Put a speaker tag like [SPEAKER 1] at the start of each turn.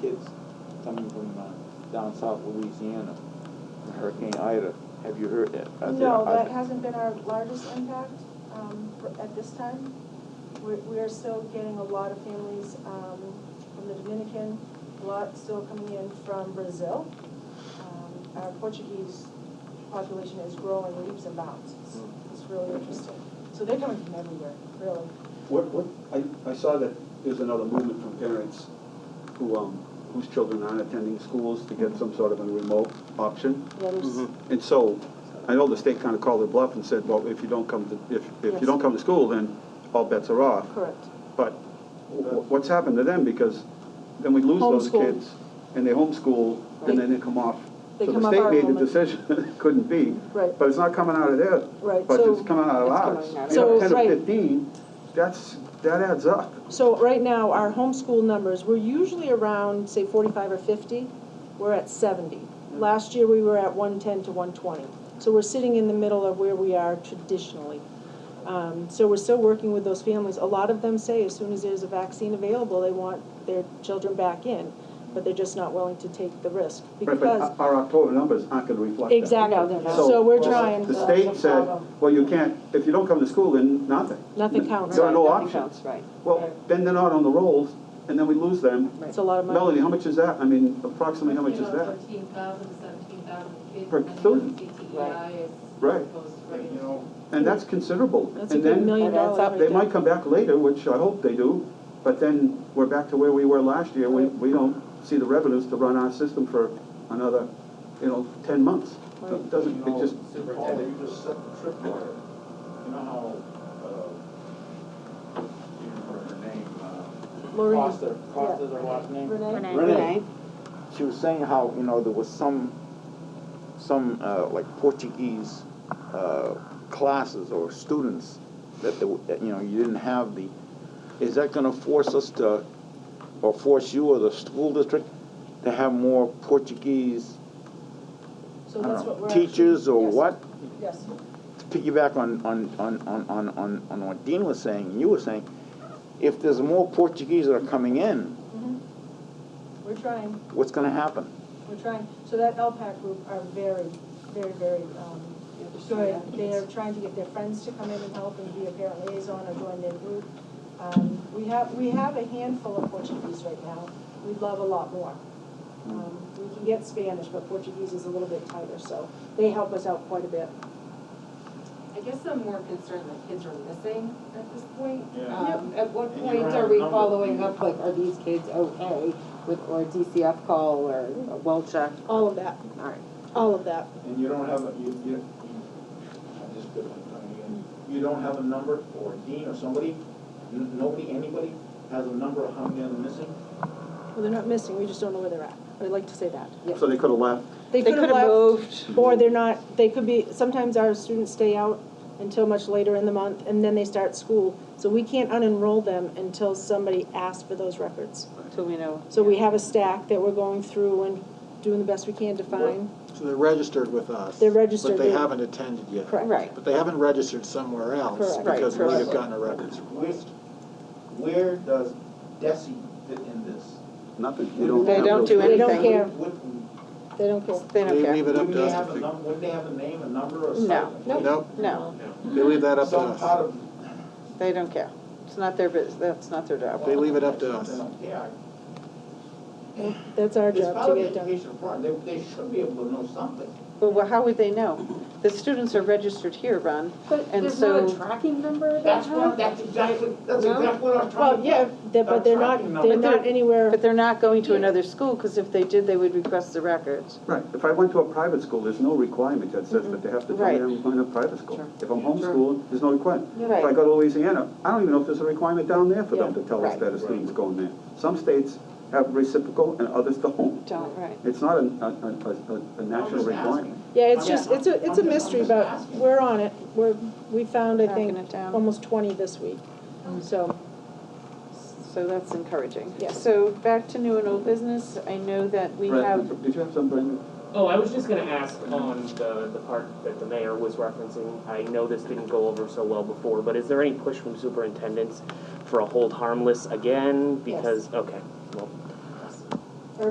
[SPEAKER 1] kids coming from uh, down south Louisiana, Hurricane Ida. Have you heard? uh, are there-
[SPEAKER 2] No,
[SPEAKER 1] are
[SPEAKER 2] that
[SPEAKER 1] there-
[SPEAKER 2] hasn't been our largest impact um, for- at this time. We're- We are still getting a lot of families um, from the Dominican, a lot still coming in from Brazil. Um, Our Portuguese population is growing leaps and bounds. It's- It's really interesting. So they're coming from everywhere, really.
[SPEAKER 3] What, what, I, I saw that there's another movement from parents who, um, whose children aren't attending schools to get some sort of a remote option.
[SPEAKER 2] Yeah, there's,
[SPEAKER 3] And so, I know the state kind of called their bluff and said, well, if you don't come to, if, if
[SPEAKER 2] Yes.
[SPEAKER 3] you don't come to school, then all bets are off.
[SPEAKER 2] correct.
[SPEAKER 3] But wh- what's happened to them, because then we lose those
[SPEAKER 2] Homeschool.
[SPEAKER 3] kids, and they homeschool, and then they come off.
[SPEAKER 2] They
[SPEAKER 3] So
[SPEAKER 2] come
[SPEAKER 3] the
[SPEAKER 2] off our
[SPEAKER 3] state made the
[SPEAKER 2] enrollment.
[SPEAKER 3] decision, it couldn't be.
[SPEAKER 2] Right.
[SPEAKER 3] But it's not coming out of there.
[SPEAKER 2] Right,
[SPEAKER 3] But
[SPEAKER 2] so-
[SPEAKER 3] it's coming out of
[SPEAKER 4] It's
[SPEAKER 3] ours.
[SPEAKER 4] coming out of
[SPEAKER 3] You know,
[SPEAKER 2] ours. So, right.
[SPEAKER 3] Ten to fifteen, that's, that adds up.
[SPEAKER 4] So right now, our homeschool numbers, we're usually around, say, forty-five or fifty. We're at seventy. Last year, we were at one-ten to one-twenty. So we're sitting in the middle of where we are traditionally. Um, so we're still working with those families. A lot of them say as soon as there's a vaccine available, they want their children back in, but they're just not willing to take the risk
[SPEAKER 3] Right,
[SPEAKER 4] because,
[SPEAKER 3] But our October numbers aren't gonna reflect that.
[SPEAKER 4] exactly.
[SPEAKER 5] No, they're not.
[SPEAKER 4] So we're
[SPEAKER 3] so
[SPEAKER 4] trying.
[SPEAKER 3] The
[SPEAKER 5] That's
[SPEAKER 3] state
[SPEAKER 5] the
[SPEAKER 3] said,
[SPEAKER 5] problem.
[SPEAKER 3] well, you can't, if you don't come to school, then nothing.
[SPEAKER 4] Nothing counts.
[SPEAKER 3] There are no
[SPEAKER 5] Nothing
[SPEAKER 3] options.
[SPEAKER 5] counts, Right.
[SPEAKER 3] Well, then they're not on the rolls, and then we lose them.
[SPEAKER 4] It's a lot of money.
[SPEAKER 3] Melanie, how much is that? I mean, approximately how much is that?
[SPEAKER 6] Thirteen thousand, seventeen thousand kids.
[SPEAKER 3] Per
[SPEAKER 6] and then
[SPEAKER 3] student.
[SPEAKER 6] CTEI E is
[SPEAKER 3] Right.
[SPEAKER 6] supposed to
[SPEAKER 7] But,
[SPEAKER 6] raise.
[SPEAKER 7] you know,
[SPEAKER 3] And that's considerable.
[SPEAKER 4] That's a good million
[SPEAKER 5] and that's
[SPEAKER 4] dollars right
[SPEAKER 5] up-
[SPEAKER 3] And then, they
[SPEAKER 4] there.
[SPEAKER 3] might come back later, which I hope they do, but then we're back to where we were last year. We, we don't see the revenues to run our system for another, you know, ten months. It
[SPEAKER 7] you
[SPEAKER 3] doesn't, it
[SPEAKER 7] know,
[SPEAKER 3] just,
[SPEAKER 7] Paul, you just set the trip order. You know how, uh, you remember her name, uh,
[SPEAKER 4] Lorraine.
[SPEAKER 1] Costa, Costa's her
[SPEAKER 6] Yeah.
[SPEAKER 1] last name?
[SPEAKER 4] Renee?
[SPEAKER 1] Renee. She was saying how, you know, there was some, some, uh, like Portuguese, uh, classes or students that, the- that, you know, you didn't have the, is that gonna force us to, or force you or the school district to have more Portuguese,
[SPEAKER 2] So
[SPEAKER 1] I
[SPEAKER 2] that's
[SPEAKER 1] don't
[SPEAKER 2] what
[SPEAKER 1] know,
[SPEAKER 2] we're.
[SPEAKER 1] teachers
[SPEAKER 2] actually-
[SPEAKER 1] or
[SPEAKER 2] yes,
[SPEAKER 1] what?
[SPEAKER 2] Yes,
[SPEAKER 1] To piggyback on, on, on, on, on, on, on what Dean was saying, and you were saying, if there's more Portuguese that are coming in,
[SPEAKER 2] Mm-hmm. we're trying.
[SPEAKER 1] what's gonna happen?
[SPEAKER 2] We're trying, so that LPAC group are very, very, very, um, good. They're trying to get their friends to come in and help and be a parent liaison or join their group. Um, we have, we have a handful of Portuguese right now. We'd love a lot more.
[SPEAKER 4] Um, We can get Spanish, but Portuguese is a little bit tighter, so they help us out quite a bit.
[SPEAKER 6] I guess I'm more concerned that kids are missing at this point.
[SPEAKER 7] Yeah.
[SPEAKER 5] Um, At what
[SPEAKER 7] And you
[SPEAKER 5] point
[SPEAKER 7] run
[SPEAKER 5] are
[SPEAKER 7] a
[SPEAKER 5] we
[SPEAKER 7] number of
[SPEAKER 5] following
[SPEAKER 7] people.
[SPEAKER 5] up, like, are these kids okay with, or a DCF call or a well check?
[SPEAKER 4] All of that,
[SPEAKER 5] All right.
[SPEAKER 4] all of that.
[SPEAKER 7] and you don't have, a you, you, I just put it on you. you don't have a number or a dean or somebody, n- nobody, anybody has a number of how many are missing?
[SPEAKER 4] Well, they're not missing, we just don't know where they're at. I'd like to say that.
[SPEAKER 3] so they could have left.
[SPEAKER 4] They could have left,
[SPEAKER 5] moved.
[SPEAKER 4] or they're not, they could be, sometimes our students stay out until much later in the month, and then they start school. So we can't unenroll them until somebody asks for those records.
[SPEAKER 5] Till we know.
[SPEAKER 4] So we have a stack that we're going through and doing the best we can to find.
[SPEAKER 8] So they're registered with us.
[SPEAKER 4] They're registered,
[SPEAKER 8] But they
[SPEAKER 4] yeah.
[SPEAKER 8] haven't attended yet.
[SPEAKER 4] Correct.
[SPEAKER 5] Right.
[SPEAKER 8] But they haven't registered somewhere else
[SPEAKER 4] Correct.
[SPEAKER 5] Right,
[SPEAKER 8] because we
[SPEAKER 5] correct.
[SPEAKER 8] have gotten a records
[SPEAKER 7] Where,
[SPEAKER 8] request.
[SPEAKER 7] where does DESI fit in this?
[SPEAKER 3] Nothing. You don't
[SPEAKER 5] They
[SPEAKER 3] have
[SPEAKER 5] don't
[SPEAKER 3] those-
[SPEAKER 5] do
[SPEAKER 4] They don't
[SPEAKER 5] anything.
[SPEAKER 4] care.
[SPEAKER 7] Would,
[SPEAKER 4] They don't care.
[SPEAKER 5] They don't
[SPEAKER 8] They
[SPEAKER 5] care.
[SPEAKER 8] leave it up
[SPEAKER 7] would
[SPEAKER 8] to
[SPEAKER 7] they
[SPEAKER 8] us
[SPEAKER 7] have a
[SPEAKER 8] to
[SPEAKER 7] num, would they have a name, a number or something?
[SPEAKER 5] No, no,
[SPEAKER 8] Nope.
[SPEAKER 5] no,
[SPEAKER 8] figure, they leave that up to
[SPEAKER 7] Some part
[SPEAKER 8] us.
[SPEAKER 7] of
[SPEAKER 5] they don't care. It's not their business, that's not their job.
[SPEAKER 8] They leave it up to us.
[SPEAKER 7] Yeah.
[SPEAKER 4] That's our
[SPEAKER 7] It's
[SPEAKER 4] job
[SPEAKER 7] part
[SPEAKER 4] to
[SPEAKER 7] of
[SPEAKER 4] get
[SPEAKER 7] the
[SPEAKER 4] it done.
[SPEAKER 7] education part, they, they should be able to know something.
[SPEAKER 5] But wha- how would they know? The students are registered here, Ron,
[SPEAKER 9] But
[SPEAKER 5] And
[SPEAKER 9] there's not
[SPEAKER 5] so-
[SPEAKER 9] a tracking number that
[SPEAKER 7] That's what, that's exactly, that's
[SPEAKER 5] No?
[SPEAKER 7] exactly what I'm trying
[SPEAKER 4] Well,
[SPEAKER 7] to
[SPEAKER 4] yeah,
[SPEAKER 7] get.
[SPEAKER 4] they're- but they're
[SPEAKER 7] They're
[SPEAKER 4] not,
[SPEAKER 7] tracking
[SPEAKER 4] they're
[SPEAKER 7] them.
[SPEAKER 4] not anywhere.
[SPEAKER 5] but they're not going to another school, because if they did, they would request the records.
[SPEAKER 3] Right, if I went to a private school, there's no requirement that says that they have to come
[SPEAKER 5] Right.
[SPEAKER 3] here and find a private school.
[SPEAKER 5] Sure.
[SPEAKER 3] If I'm
[SPEAKER 7] Sure.
[SPEAKER 3] homeschooled, there's no requirement. If I
[SPEAKER 5] Right.
[SPEAKER 3] go to Louisiana, I don't even know if there's a requirement down there for them
[SPEAKER 4] Yeah.
[SPEAKER 3] to tell us
[SPEAKER 5] Right.
[SPEAKER 3] that a student's going there. Some states have reciprocal and others don't.
[SPEAKER 5] Don't, right.
[SPEAKER 3] It's not a, a, a- a, a national
[SPEAKER 7] just asking.
[SPEAKER 3] requirement.
[SPEAKER 4] Yeah, it's
[SPEAKER 7] I'm
[SPEAKER 4] just, it's
[SPEAKER 7] just-
[SPEAKER 4] a, it's a
[SPEAKER 7] I'm just-
[SPEAKER 4] mystery,
[SPEAKER 7] I'm just
[SPEAKER 4] but
[SPEAKER 7] asking.
[SPEAKER 4] we're on it. We're, we found, I
[SPEAKER 5] Tracking
[SPEAKER 4] think,
[SPEAKER 5] it down.
[SPEAKER 4] almost twenty this week. So,
[SPEAKER 5] So that's encouraging.
[SPEAKER 4] Yes.
[SPEAKER 5] So back to new and old business, I know that we
[SPEAKER 3] Brad,
[SPEAKER 5] have,
[SPEAKER 3] Did you have some, Brendan?
[SPEAKER 10] Oh, I was just gonna ask on the, the part that the mayor was referencing, I know this didn't go over so well before, but is there any push from superintendents for a hold harmless again? Because, okay, well,